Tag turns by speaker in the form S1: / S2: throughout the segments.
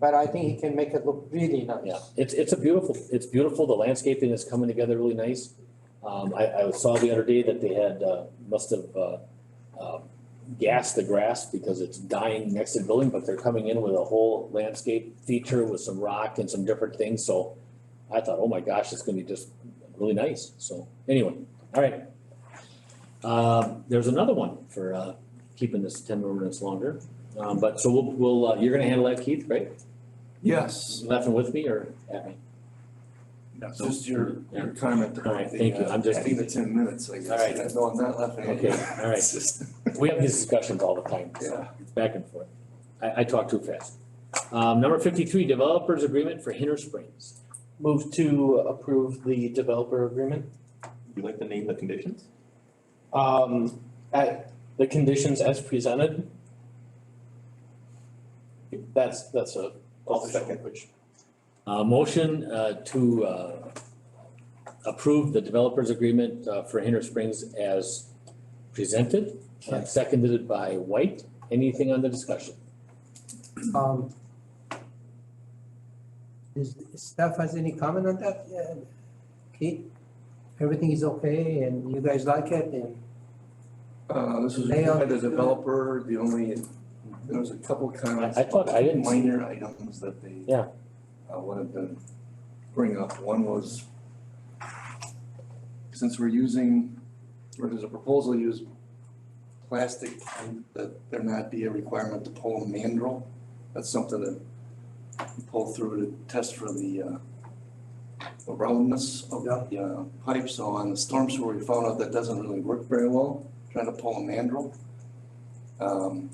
S1: but I think he can make it look really nice.
S2: Yeah, it's, it's a beautiful, it's beautiful. The landscaping is coming together really nice. Um, I, I saw the other day that they had, uh, must have, uh, um, gassed the grass because it's dying next to the building, but they're coming in with a whole landscape feature with some rock and some different things, so I thought, oh my gosh, it's gonna be just really nice, so anyway, all right. Um, there's another one for, uh, keeping this ten minutes longer, um, but so we'll, we'll, uh, you're gonna handle that, Keith, right?
S3: Yes.
S2: Laughing with me or at me?
S3: Just your, your comment.
S2: All right, thank you. I'm just-
S3: I think the ten minutes, I guess.
S2: All right.
S3: No, I'm not laughing. at you.
S2: Okay, all right.
S3: It's just-
S2: We have these discussions all the time,
S3: Yeah.
S2: it's back and forth. I, I talk too fast. Um, number fifty-three, developers agreement for Hinter Springs.
S4: Move to approve the developer agreement.
S5: You like to name the conditions?
S4: Um, at the conditions as presented. That's, that's a.
S5: I'll second.
S4: which-
S2: Uh, motion, uh, to, uh, approve the developers agreement, uh, for Hinter Springs as presented and seconded by White. Anything on the discussion?
S1: Um. Is, staff has any comment on that? Yeah, Keith, everything is okay and you guys like it and,
S3: Uh, this was
S1: Layout.
S3: by the developer, the only, there was a couple comments.
S2: I- I thought- I didn't see-
S3: Minor items that they.
S2: Yeah.
S3: Uh, wanted to bring up. One was, since we're using, or there's a proposal to use plastic, and that there not be a requirement to pull a mandrel. That's something that you pull through to test for the, uh, the roundness of the uh, pipe. So on the storm sewer, we found out that doesn't really work very well, trying to pull a mandrel. Um,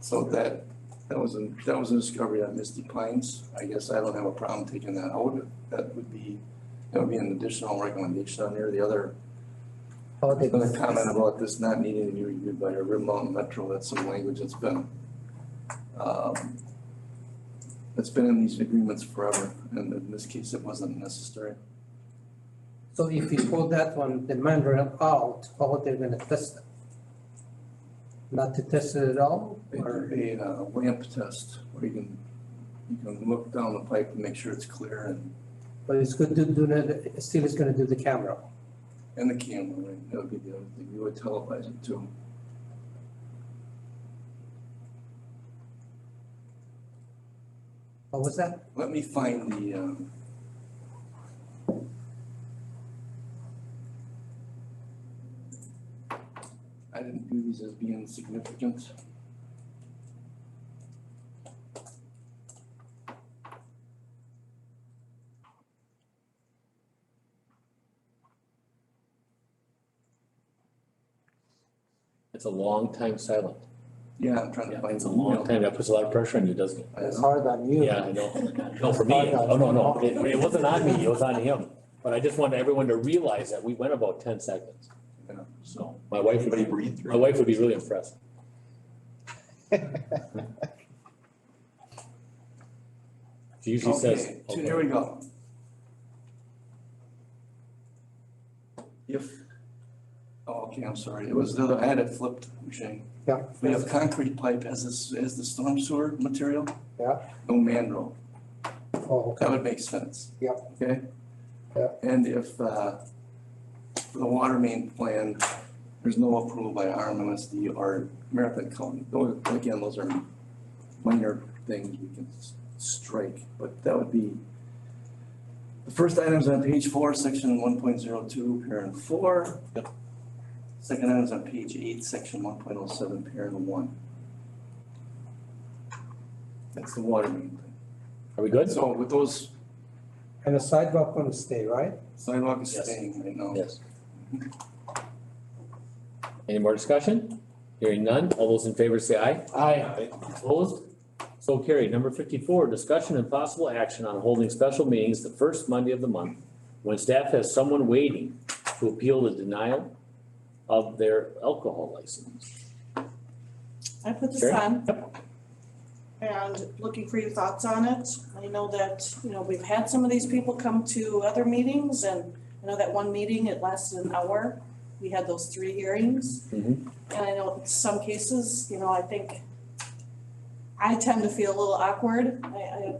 S3: so that, that was a, that was a discovery at Misty Pines. I guess I don't have a problem taking that out. That would be, that would be an additional recommendation on there. The other,
S1: how they.
S3: another comment about this not needing to be reviewed by a Rim Mountain Metro, that's some language that's been, um, that's been in these agreements forever, and in this case, it wasn't necessary.
S1: So if you pull that one, the mandrel out, how they're gonna test it? Not to test it at all
S3: They
S1: or?
S3: do a uh, lamp test where you can, you can look down the pipe and make sure it's clear and,
S1: But it's good to do that, still is gonna do the camera.
S3: and the camera, right? That would be the other thing. You would televise it too.
S1: What was that?
S3: Let me find the, um, I didn't do these as being significant.
S2: It's a long time silent.
S3: Yeah, I'm trying to find
S2: It's a
S3: the
S2: long
S3: email.
S2: time, that puts a lot of pressure on you, doesn't it?
S3: I-
S1: hard on you.
S2: Yeah, I know. No, for me, oh, no, no, it, it wasn't on me, it was on him. But I just wanted everyone to realize that we went about ten seconds.
S3: Yeah.
S2: So my wife would be,
S5: read
S2: my wife would be really impressed. She usually says.
S3: Okay, so Here we go. If, oh, okay, I'm sorry, it was the other, I had it flipped, Shane.
S1: Yeah.
S3: We have concrete pipe as this, as the storm sewer material.
S1: Yeah.
S3: No mandrel,
S1: Oh, okay.
S3: that would make sense.
S1: Yeah.
S3: Okay?
S1: Yeah.
S3: And if, uh, the water main plan, there's no approval by RMLSD or Marathon County, those, again, those are minor things we can s- strike, but that would be the first item's on page four, section one point zero two, parent four. Yep. Second item's on page eight, section one point oh seven, parent one. That's the water main plan.
S2: Are we good?
S3: So with those
S1: And the sidewalk gonna stay, right?
S3: sidewalk is
S2: Yes.
S3: staying right now.
S2: Yes. Any more discussion? Hearing none, all those in favor say aye. Aye. Opposed? So carried. Number fifty-four, discussion and possible action on holding special meetings the first Monday of the month when staff has someone waiting to appeal the denial of their alcohol license.
S6: I put this
S2: Sure.
S6: on. And looking for your thoughts on it. I know that, you know, we've had some of these people come to other meetings and I know that one meeting, it lasted an hour. We had those three hearings.
S2: Mhm.
S6: And I know in some cases, you know, I think I tend to feel a little awkward. I, I